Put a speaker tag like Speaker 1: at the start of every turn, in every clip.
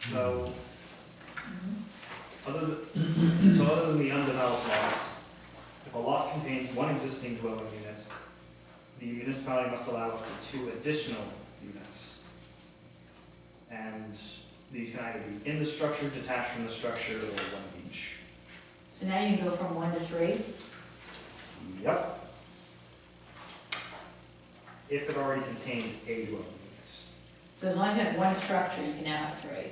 Speaker 1: So,
Speaker 2: Mm-hmm.
Speaker 1: other than, so other than the undeveloped lots, if a lot contains one existing dwelling unit, the municipality must allow up to two additional units. And these can either be in the structure, detached from the structure, or one of each.
Speaker 2: So now you can go from one to three?
Speaker 1: Yep. If it already contains a dwelling unit.
Speaker 2: So as long as you have one structure, you can now have three.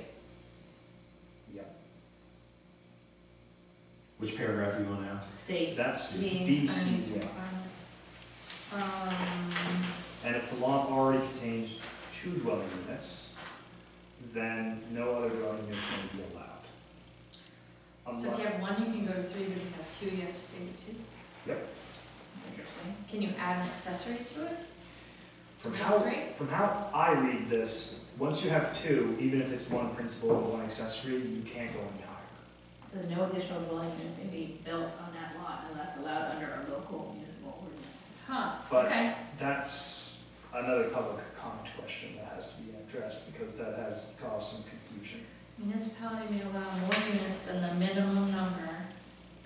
Speaker 1: Yep.
Speaker 3: Which paragraph are you on now?
Speaker 2: C.
Speaker 1: That's
Speaker 4: The
Speaker 1: B, C,
Speaker 4: findings and
Speaker 1: yeah.
Speaker 4: requirements. Um,
Speaker 1: And if the lot already contains two dwelling units, then no other dwelling units may be allowed.
Speaker 4: so if you
Speaker 1: Unless,
Speaker 4: have one, you can go to three, but if you have two, you have to stay with two.
Speaker 2: That's interesting.
Speaker 4: Can you add an accessory to it?
Speaker 1: from
Speaker 4: you
Speaker 1: how,
Speaker 4: have three?
Speaker 1: from how I read this, once you have two, even if it's one principal and one accessory, you can't go any higher.
Speaker 2: So no additional dwelling units may be built on that lot unless allowed under our local municipal ordinance.
Speaker 4: Huh,
Speaker 1: But-
Speaker 4: okay.
Speaker 1: That's another public comment question that has to be addressed, because that has caused some confusion.
Speaker 4: Municipality may allow more units than the minimum number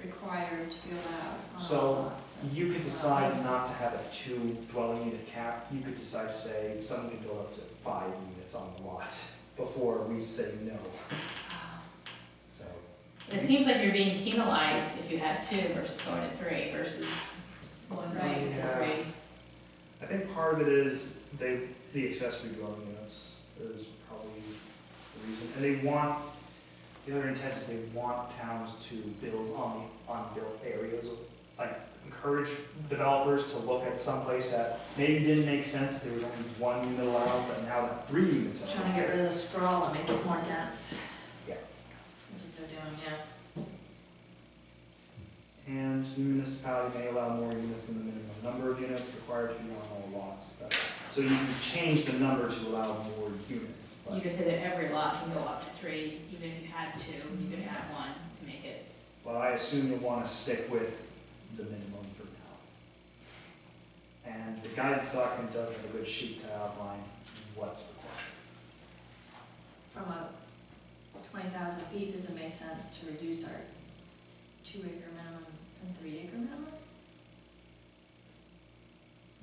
Speaker 4: required to be allowed on
Speaker 1: So,
Speaker 4: all lots.
Speaker 1: You could decide not to have a two dwelling unit cap, you could decide to say someone can build up to five units on the lot before we say no,
Speaker 4: Ah,
Speaker 1: so.
Speaker 2: It seems like you're being penalized if you had two versus going to three versus one going to
Speaker 1: Yeah.
Speaker 2: three.
Speaker 1: I think part of it is they, the accessory dwelling units is probably the reason, and they want, the other intent is they want towns to build on the unbuilt areas, like encourage developers to look at someplace that maybe didn't make sense if there was only one unit allowed, but now that three units are
Speaker 4: Trying to
Speaker 1: allowed.
Speaker 4: get rid of the sprawl and make it more dense.
Speaker 1: Yeah.
Speaker 4: That's what they're doing, yeah.
Speaker 1: And the municipality may allow more units than the minimum number of units required to be on all lots. That- So you can change the number to allow more units,
Speaker 2: You
Speaker 1: but
Speaker 2: could say that every lot can go up to three, even if you had two, you could add one to make it.
Speaker 1: but I assume you'll want to stick with the minimum for now. And the guidance document does have a good sheet to outline what's required.
Speaker 4: From a twenty thousand feet, does it make sense to reduce our two acre minimum and three acre minimum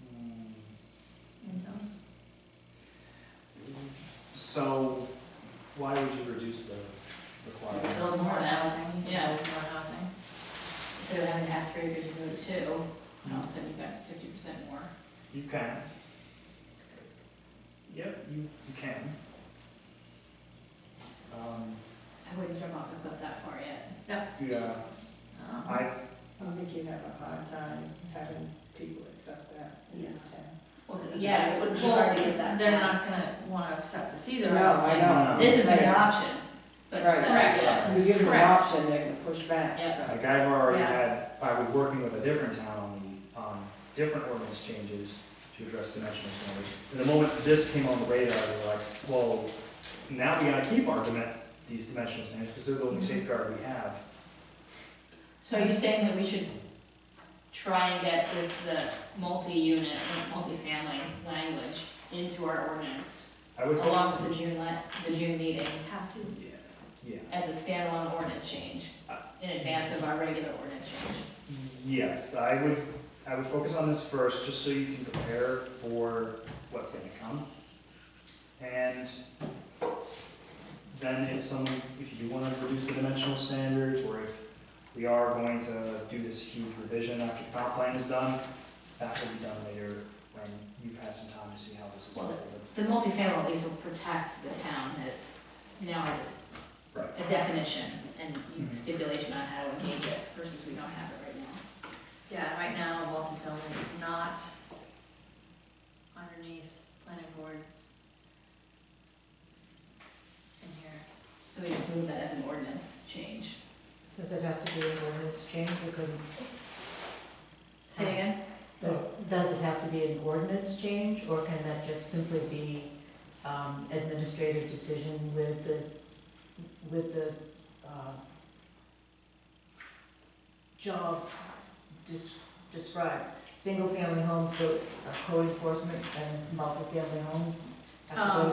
Speaker 1: Mm,
Speaker 4: in zones?
Speaker 1: So why would you reduce the requirement?
Speaker 2: Build more now,
Speaker 4: housing.
Speaker 2: Yeah.
Speaker 4: More housing.
Speaker 2: instead of having to have three acres, you go to two, and all of a sudden you've got fifty percent more.
Speaker 1: You can. Yep, you, you can. Um,
Speaker 2: I wouldn't jump off a cliff that far yet.
Speaker 1: Yeah,
Speaker 4: Um,
Speaker 1: I,
Speaker 5: I think you'd have a hard time having people accept that in this town.
Speaker 2: Yeah, it would be
Speaker 4: Well,
Speaker 2: hard to get that
Speaker 4: They're not
Speaker 2: fast.
Speaker 4: gonna wanna accept this either,
Speaker 5: No,
Speaker 4: I would
Speaker 5: I
Speaker 4: think.
Speaker 5: know.
Speaker 2: This is an
Speaker 5: Right.
Speaker 2: option, but.
Speaker 5: Right.
Speaker 4: Correct.
Speaker 2: Yeah.
Speaker 5: You give them an
Speaker 4: Correct.
Speaker 5: option, they're gonna push back.
Speaker 2: Yeah.
Speaker 1: like I've already
Speaker 4: Yeah.
Speaker 1: had, I was working with a different town on the, on different ordinance changes to address dimensional standards. And the moment this came on the radar, they were like, well, now we gotta keep our dimen, these dimensional standards, because they're the only safeguard we have.
Speaker 2: So are you saying that we should try and get this, the multi-unit, and multi-family language into our ordinance
Speaker 1: I would hope,
Speaker 2: along with the June, le- the June meeting
Speaker 4: Have to,
Speaker 1: yeah, yeah,
Speaker 2: as a standalone ordinance change in advance of our regular ordinance change?
Speaker 1: yes, I would, I would focus on this first, just so you can prepare for what's gonna come. And then if someone, if you wanna reduce the dimensional standards, or if we are going to do this huge revision after the comp plan is done, that will be done later, when you've had some time to see how this is
Speaker 2: Well,
Speaker 1: going.
Speaker 2: The multifamily at least will protect the town that it's now
Speaker 1: Right.
Speaker 2: a definition and
Speaker 1: Mhm.
Speaker 2: stipulation on how to engage it versus we don't have it right now.
Speaker 4: yeah, right now, multifamily is not underneath planning board in here.
Speaker 2: So we just move that as an ordinance change.
Speaker 6: Does it have to be an ordinance change, or could,
Speaker 2: Say it again?
Speaker 6: does, does it have to be an ordinance change, or can that just simply be, um, administrative decision with the, with the, uh, job des- described? Single-family homes go, uh, code enforcement, and multifamily homes have to go to
Speaker 4: Um,